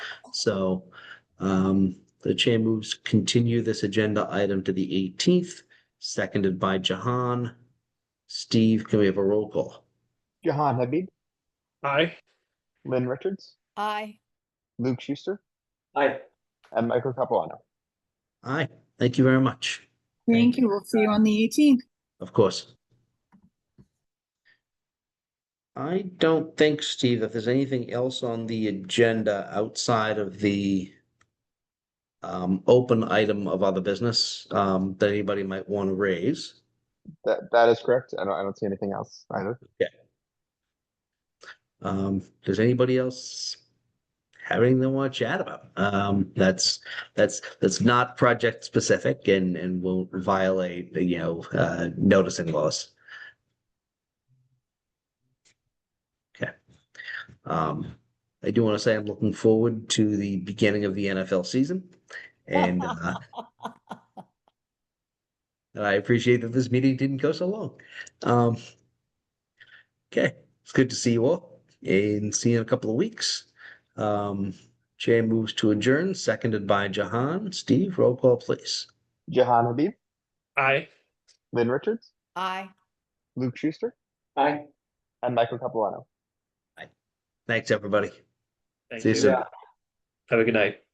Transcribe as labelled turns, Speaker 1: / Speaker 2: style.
Speaker 1: So um, the chair moves continue this agenda item to the eighteenth, seconded by Jahan. Steve, can we have a roll call?
Speaker 2: Jahan Habib,
Speaker 3: Aye.
Speaker 2: Lynn Richards,
Speaker 4: Aye.
Speaker 2: Luke Schuster,
Speaker 3: Aye.
Speaker 2: and Michael Capuano.
Speaker 1: Aye, thank you very much,
Speaker 4: Thank you. We'll see you on the eighteenth.
Speaker 1: of course. I don't think, Steve, that there's anything else on the agenda outside of the um, open item of other business um, that anybody might want to raise.
Speaker 2: That, that is correct. I don't, I don't see anything else either.
Speaker 1: Um, does anybody else have anything they want to chat about? Um, that's, that's, that's not project specific and, and will violate, you know, uh, noticing laws. Okay. Um, I do want to say I'm looking forward to the beginning of the NFL season and, uh, and I appreciate that this meeting didn't go so long. Um, okay, it's good to see you all and see you in a couple of weeks. Um, Chair moves to adjourn, seconded by Jahan. Steve, roll call, please.
Speaker 2: Jahan Habib,
Speaker 3: Aye.
Speaker 2: Lynn Richards,
Speaker 4: Aye.
Speaker 2: Luke Schuster,
Speaker 3: Aye.
Speaker 2: and Michael Capuano.
Speaker 1: Thanks, everybody.
Speaker 3: Thank
Speaker 1: See you soon.
Speaker 3: Have a good night.